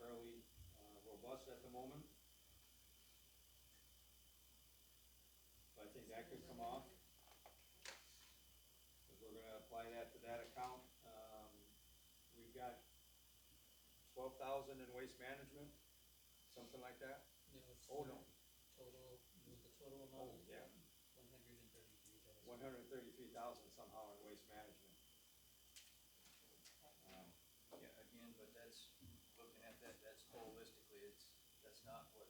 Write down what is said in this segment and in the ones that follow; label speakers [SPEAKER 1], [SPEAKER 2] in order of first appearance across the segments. [SPEAKER 1] fairly uh, robust at the moment. But I think that could come off. Because we're gonna apply that to that account. Um, We've got twelve thousand in waste management, something like that.
[SPEAKER 2] No, it's
[SPEAKER 1] Oh, no,
[SPEAKER 2] Total, the total
[SPEAKER 1] oh,
[SPEAKER 2] amount is
[SPEAKER 1] yeah,
[SPEAKER 2] one hundred and thirty-three thousand.
[SPEAKER 1] one hundred and thirty-three thousand somehow in waste management. Um,
[SPEAKER 3] Yeah, again, but that's, looking at that, that's holistically, it's, that's not what,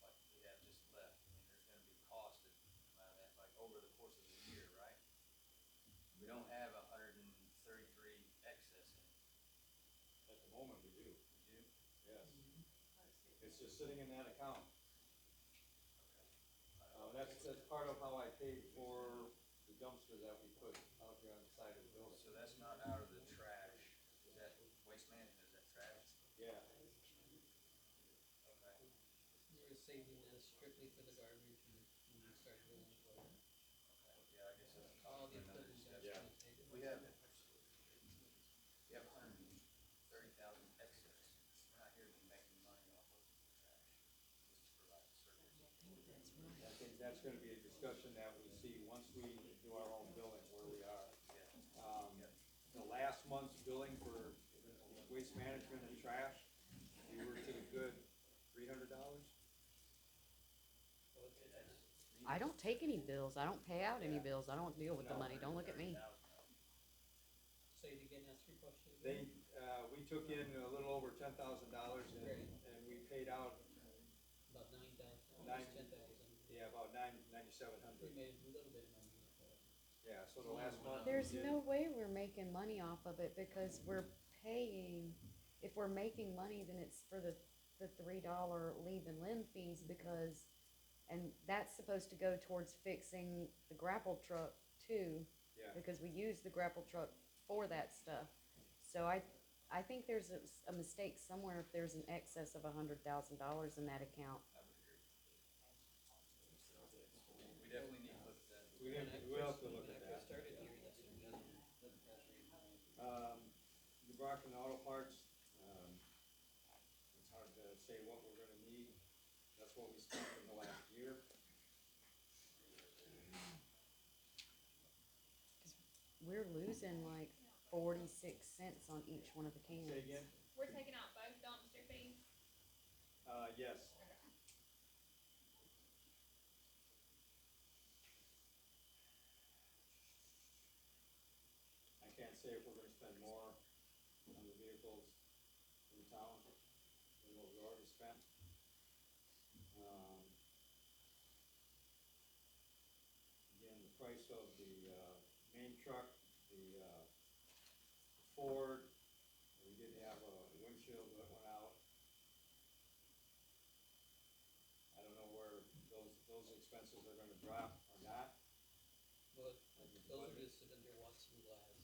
[SPEAKER 3] like, we have just left. I mean, there's gonna be cost that come out of uh, that, like, over the course of the year, right? We don't have a hundred and thirty-three excess in it,
[SPEAKER 1] At the moment, we do,
[SPEAKER 3] we do?
[SPEAKER 1] yes. It's just sitting in that account.
[SPEAKER 3] Okay. I don't-
[SPEAKER 1] Uh, that's, that's part of how I paid for the dumpster that we put out there on the side of the building.
[SPEAKER 3] So that's not out of the trash, is that waste management, is that trash?
[SPEAKER 1] Yeah,
[SPEAKER 3] Okay.
[SPEAKER 2] We were saving that strictly for the garbage and when we started rolling forward.
[SPEAKER 3] Okay. Yeah, I guess that's.
[SPEAKER 2] All the
[SPEAKER 3] another
[SPEAKER 2] equipment that's
[SPEAKER 3] discussion.
[SPEAKER 1] Yeah.
[SPEAKER 2] gonna take it.
[SPEAKER 3] We have, we have hundred and thirty thousand excess. We're not here to be making money off of trash, just to provide service.
[SPEAKER 1] I think that's gonna be a discussion that we see once we do our own billing, where we are.
[SPEAKER 3] Yeah,
[SPEAKER 1] Um, the last month's billing for waste management and trash, we were to the good three hundred dollars.
[SPEAKER 3] okay, that's.
[SPEAKER 4] I don't take any bills. I don't pay out any
[SPEAKER 1] Yeah.
[SPEAKER 4] bills. I don't deal with the
[SPEAKER 1] No.
[SPEAKER 4] money. Don't look at me.
[SPEAKER 2] Say it again, ask your question.
[SPEAKER 1] They, uh, we took in a little over ten thousand dollars and, and we paid out,
[SPEAKER 2] About nine thousand,
[SPEAKER 1] Nine.
[SPEAKER 2] almost ten thousand.
[SPEAKER 1] yeah, about nine, ninety-seven
[SPEAKER 2] We
[SPEAKER 1] hundred.
[SPEAKER 2] made a little bit of money. off of it.
[SPEAKER 1] Yeah, so the last month. we
[SPEAKER 4] There's
[SPEAKER 1] did-
[SPEAKER 4] no way we're making money off of it because we're paying, if we're making money, then it's for the, the three dollar leave and limb fees because, and that's supposed to go towards fixing the grapple truck too,
[SPEAKER 1] Yeah.
[SPEAKER 4] because we use the grapple truck for that stuff. So I, I think there's a, a mistake somewhere if there's an excess of a hundred thousand dollars in that account.
[SPEAKER 3] I would agree. We definitely need to look at that.
[SPEAKER 1] We have,
[SPEAKER 2] When I
[SPEAKER 1] we have
[SPEAKER 2] first-
[SPEAKER 1] to look at
[SPEAKER 2] When I first
[SPEAKER 1] that.
[SPEAKER 2] started here, that's what it was.
[SPEAKER 1] Um, Dubrakin Auto Parts, um, it's hard to say what we're gonna need, that's what we spent in the last year.
[SPEAKER 4] We're losing like forty-six cents on each one of the cans.
[SPEAKER 1] Say again?
[SPEAKER 5] We're taking out both dumpster fees.
[SPEAKER 1] Uh, yes. I can't say if we're gonna spend more on the vehicles in town than what we already spent. Um, Again, the price of the, uh, main truck, the, uh, Ford, we did have a windshield that went out. I don't know where those, those expenses are gonna drop or not.
[SPEAKER 2] Well, those are just sitting there watching glass.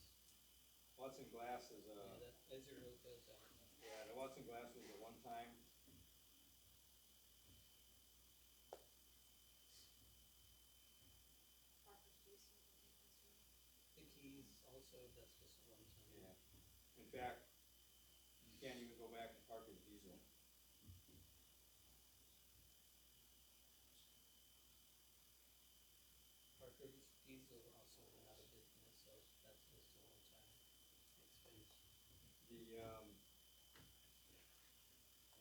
[SPEAKER 1] Watson Glass is
[SPEAKER 2] Yeah,
[SPEAKER 1] a,
[SPEAKER 2] that, that's a real good sign.
[SPEAKER 1] yeah, the Watson Glass was a one-time.
[SPEAKER 2] The keys also, that's just a one time.
[SPEAKER 1] In fact, you can't even go back to Parker's diesel.
[SPEAKER 2] Parker's diesel also went out of business, so that's just a one time expense.
[SPEAKER 1] The, um,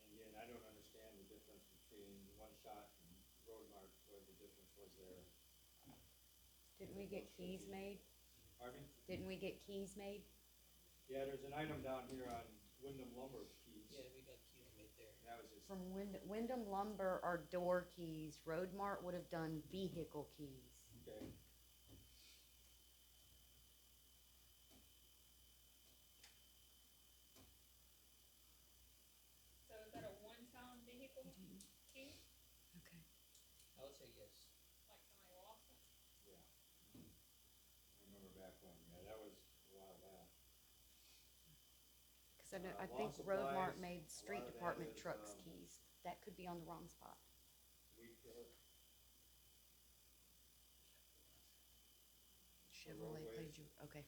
[SPEAKER 1] and again, I don't understand the difference between one shot and road mark, where the difference was there.
[SPEAKER 4] Didn't we get keys made?
[SPEAKER 1] Harvey?
[SPEAKER 4] Didn't we get keys made?
[SPEAKER 1] Yeah, there's an item down here on Wyndham lumber keys.
[SPEAKER 2] Yeah, we got keys right there.
[SPEAKER 1] And That was just,
[SPEAKER 4] From Wynd- Wyndham Lumber are door keys. Road Mart would have done vehicle keys.
[SPEAKER 1] okay.
[SPEAKER 5] So is that a one-time vehicle key?
[SPEAKER 4] Okay.
[SPEAKER 2] I would say yes.
[SPEAKER 5] Like somebody lost it?
[SPEAKER 1] Yeah. I remember back when, yeah, that was a while back.
[SPEAKER 4] Because I know,
[SPEAKER 1] Uh,
[SPEAKER 4] I
[SPEAKER 1] lawn
[SPEAKER 4] think Road
[SPEAKER 1] supplies,
[SPEAKER 4] Mart
[SPEAKER 1] a
[SPEAKER 4] made
[SPEAKER 1] lot
[SPEAKER 4] street
[SPEAKER 1] of that
[SPEAKER 4] department
[SPEAKER 1] is,
[SPEAKER 4] trucks
[SPEAKER 1] um,
[SPEAKER 4] keys. That could be on the wrong spot.
[SPEAKER 1] Weed killer.
[SPEAKER 4] Chevrolet
[SPEAKER 1] roadways.
[SPEAKER 4] played you, okay.